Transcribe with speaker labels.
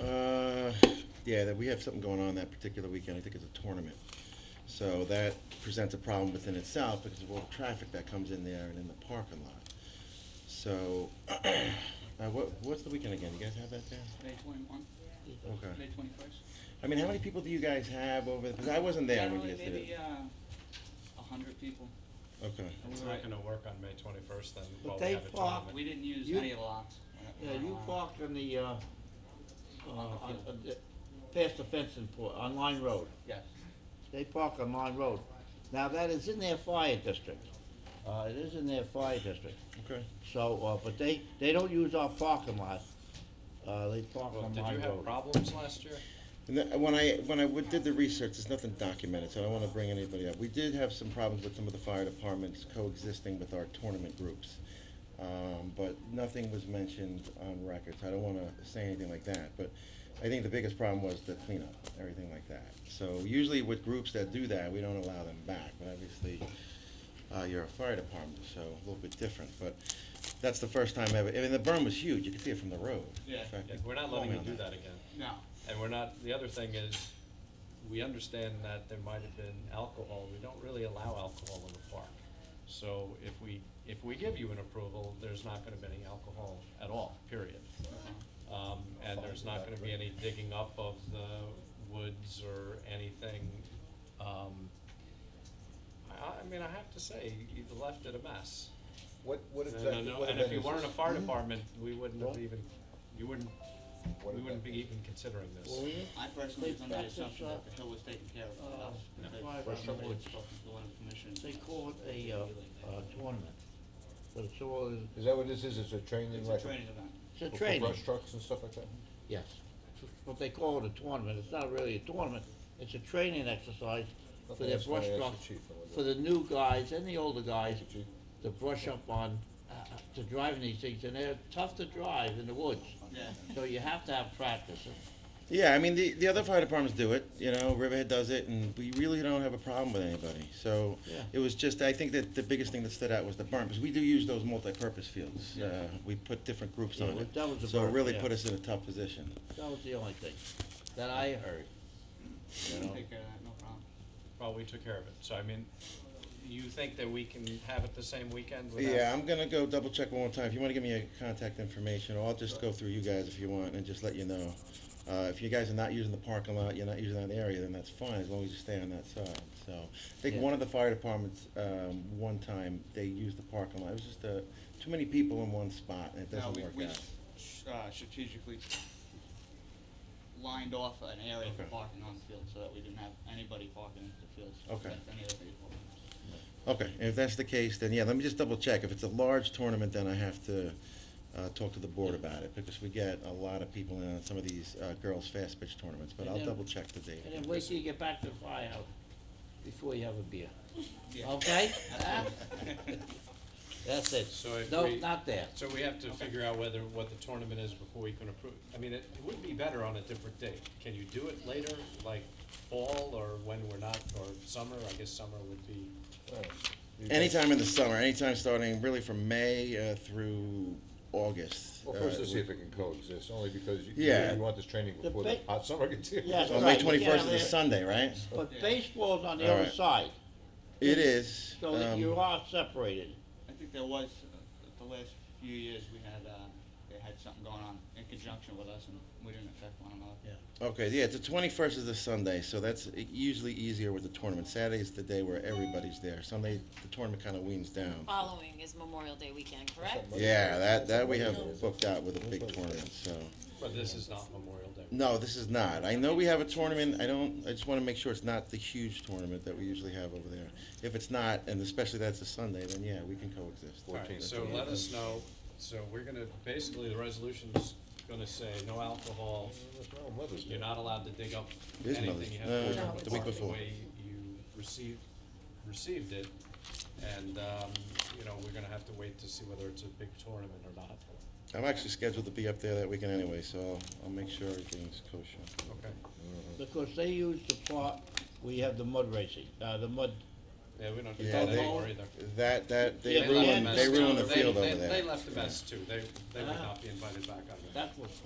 Speaker 1: Uh, Yeah, that we have something going on that particular weekend, I think it's a tournament. So that presents a problem within itself because of all the traffic that comes in there and in the parking lot. So, uh, what, what's the weekend again, you guys have that there?
Speaker 2: May twenty-one,
Speaker 1: Okay.
Speaker 2: May twenty-first.
Speaker 1: I mean, how many people do you guys have over, because I wasn't there when you guys did
Speaker 2: Generally, maybe,
Speaker 1: it.
Speaker 2: uh, a hundred people.
Speaker 1: Okay,
Speaker 3: It's
Speaker 2: Right.
Speaker 3: not gonna work on May twenty-first then,
Speaker 4: But
Speaker 3: while
Speaker 4: they
Speaker 3: we have a
Speaker 4: park-
Speaker 3: tournament.
Speaker 2: We didn't use
Speaker 4: You-
Speaker 2: any lots.
Speaker 4: Yeah, you parked on the, uh, uh, on,
Speaker 2: field.
Speaker 4: on the- past the fencing port, on Line Road.
Speaker 2: Yes,
Speaker 4: They park on Line Road. Now, that is in their fire district. Uh, it is in their fire district.
Speaker 1: okay.
Speaker 4: So, uh, but they, they don't use our parking lot. Uh, they park
Speaker 3: Well,
Speaker 4: on
Speaker 3: did you
Speaker 4: Line
Speaker 3: have
Speaker 4: Road.
Speaker 3: problems last year?
Speaker 1: And that- when I, when I w- did the research, there's nothing documented, so I don't wanna bring anybody up. We did have some problems with some of the fire departments coexisting with our tournament groups. Um, but nothing was mentioned on record, so I don't wanna say anything like that, but I think the biggest problem was the cleanup, everything like that. So usually with groups that do that, we don't allow them back, but obviously, uh, you're a fire department, so a little bit different, but that's the first time ever, I mean, the burn was huge, you could see it from the road. In
Speaker 2: Yeah.
Speaker 1: fact,
Speaker 3: Yeah,
Speaker 1: you
Speaker 3: We're not
Speaker 1: called
Speaker 3: letting
Speaker 1: me
Speaker 3: you
Speaker 1: on
Speaker 3: do that again.
Speaker 2: no,
Speaker 3: And we're not, the other thing is, we understand that there might have been alcohol, we don't really allow alcohol in the park. So if we, if we give you an approval, there's not gonna be any alcohol at all, period. Um, and there's not gonna be any digging up of the woods or anything. Um, I, I mean, I have to say, you left it a mess.
Speaker 5: What, what
Speaker 3: And I
Speaker 5: exactly,
Speaker 3: know-
Speaker 5: what
Speaker 3: And if
Speaker 5: event
Speaker 3: you
Speaker 5: is
Speaker 3: weren't a
Speaker 5: this?
Speaker 3: fire department, we wouldn't have
Speaker 5: What?
Speaker 3: even, you wouldn't,
Speaker 5: What
Speaker 3: we
Speaker 5: event
Speaker 3: wouldn't be
Speaker 5: is
Speaker 3: even considering this.
Speaker 4: Well, we-
Speaker 2: I personally was under the
Speaker 4: They practice,
Speaker 2: assumption
Speaker 4: uh,
Speaker 2: that the hill was taken care of by us,
Speaker 4: uh,
Speaker 2: because
Speaker 4: fire
Speaker 2: the hill was
Speaker 4: department.
Speaker 2: spoken to one of the commissioners.
Speaker 4: They call it a, uh, uh, tournament. But it's all,
Speaker 5: Is that what this is, it's a training
Speaker 2: It's
Speaker 5: like?
Speaker 2: a training event.
Speaker 4: it's a
Speaker 5: for- for
Speaker 4: training.
Speaker 5: brush trucks and stuff like that?
Speaker 4: Yes. But they call it a tournament, it's not really a tournament, it's a training exercise for
Speaker 5: Okay,
Speaker 4: their
Speaker 5: that's why
Speaker 4: brush
Speaker 5: I asked the
Speaker 4: truck,
Speaker 5: chief and what-
Speaker 4: for the new guys and the older guys
Speaker 5: Thank you, Chief.
Speaker 4: to brush up on, uh, uh, to driving these things, and they're tough to drive in the woods.
Speaker 2: Yeah.
Speaker 4: So you have to have practice.
Speaker 1: Yeah, I mean, the, the other fire departments do it, you know, Riverhead does it, and we really don't have a problem with anybody. So
Speaker 4: Yeah.
Speaker 1: it was just, I think that the biggest thing that stood out was the burn, because we do use those multi-purpose fields. Uh, we put different groups
Speaker 4: Yeah,
Speaker 1: on
Speaker 4: well,
Speaker 1: it.
Speaker 4: that was the
Speaker 1: So it
Speaker 4: burn,
Speaker 1: really
Speaker 4: yeah.
Speaker 1: put us in a tough position.
Speaker 4: That was the only thing that I heard.
Speaker 2: We'll Take care of that, no problem.
Speaker 3: Well, we took care of it, so I mean, you think that we can have it the same weekend
Speaker 4: uh,
Speaker 3: without?
Speaker 1: Yeah, I'm gonna go double check one more time. If you wanna give me your contact information, or I'll just go through you guys if you want, and just let you know. Uh, if you guys are not using the parking lot, you're not using that area, then that's fine, as long as you stay on that side, so. I think
Speaker 4: Yeah.
Speaker 1: one of the fire departments, um, one time, they used the parking lot, it was just, uh, too many people in one spot, and it
Speaker 2: No,
Speaker 1: doesn't
Speaker 2: we- we
Speaker 1: work out.
Speaker 2: s- uh, strategically lined off an area for
Speaker 1: Okay.
Speaker 2: parking on the field, so that we didn't have anybody parking in the fields.
Speaker 1: Okay.
Speaker 2: except any other people.
Speaker 1: Okay, and if that's the case, then yeah, let me just double check. If it's a large tournament, then I have to, uh, talk to the board about it, because we get a lot of people in on some of these, uh, girls' fast pitch tournaments, but
Speaker 4: And
Speaker 1: I'll
Speaker 4: then-
Speaker 1: double check the date.
Speaker 4: And then wait till you get back to the firehouse before you have a beer,
Speaker 2: Yeah.
Speaker 4: okay?
Speaker 2: Absolutely.
Speaker 4: That's
Speaker 3: So if
Speaker 4: it. No,
Speaker 3: we-
Speaker 4: not there.
Speaker 3: So we have to figure out whether, what the tournament is before we can approve, I mean, it would be better on a different date. Can you do it later, like fall, or when we're not, or summer, I guess summer would be,
Speaker 5: Alright. You guys-
Speaker 1: Anytime in the summer, anytime starting really from May uh, through August.
Speaker 5: Well, first
Speaker 1: uh,
Speaker 5: let's see if it can coexist, only because you,
Speaker 1: Yeah.
Speaker 5: you want this training
Speaker 4: The
Speaker 5: before the
Speaker 4: ba-
Speaker 5: hot summer gets here.
Speaker 4: Yeah.
Speaker 1: Well, May
Speaker 4: Right, we can't
Speaker 1: twenty-first is a
Speaker 4: have it.
Speaker 1: Sunday, right?
Speaker 4: But
Speaker 2: Yeah.
Speaker 4: baseball's on the
Speaker 1: All
Speaker 4: other
Speaker 1: right.
Speaker 4: side,
Speaker 1: It is.
Speaker 4: so that
Speaker 1: um,
Speaker 4: you are separated.
Speaker 2: I think there was, uh, the last few years, we had, uh, they had something going on in conjunction with us, and we didn't affect one another.
Speaker 1: Okay, yeah, the twenty-first is a Sunday, so that's usually easier with the tournament. Saturday's the day where everybody's there. Sunday, the tournament kind of weans down.
Speaker 6: following is Memorial Day weekend, correct?
Speaker 1: Yeah, that, that we have booked out with a big tournament, so.
Speaker 3: but this is not Memorial Day.
Speaker 1: No, this is not. I know we have a tournament. I don't, I just want to make sure it's not the huge tournament that we usually have over there. If it's not, and especially that's a Sunday, then yeah, we can coexist.
Speaker 3: Alright, so let us know, so we're gonna, basically, the resolution's gonna say no alcohol,
Speaker 5: That's my own mother's
Speaker 3: You're
Speaker 5: day.
Speaker 3: not allowed to dig up
Speaker 1: It is
Speaker 3: anything
Speaker 1: Mother's-
Speaker 3: you
Speaker 1: no,
Speaker 3: have. to
Speaker 1: Uh, no,
Speaker 3: put
Speaker 1: the week
Speaker 3: apart
Speaker 1: before.
Speaker 3: way you received, received it, and, um, you know, we're gonna have to wait to see whether it's a big tournament or not.
Speaker 1: I'm actually scheduled to be up there that weekend anyway, so I'll, I'll make sure everything's kosher.
Speaker 3: Okay.
Speaker 4: Because they use the part, we have the mud racing, uh, the mud,
Speaker 3: Yeah, we don't do
Speaker 1: Yeah,
Speaker 3: that
Speaker 1: they-
Speaker 3: anymore either.
Speaker 1: That, that, they
Speaker 4: Yeah, they
Speaker 1: ruined,
Speaker 4: had
Speaker 1: they
Speaker 4: messed
Speaker 1: ruined the
Speaker 3: They-
Speaker 1: field
Speaker 3: they-
Speaker 1: over there.
Speaker 3: They left a mess too, they, they would not be invited back on that.
Speaker 4: that's what's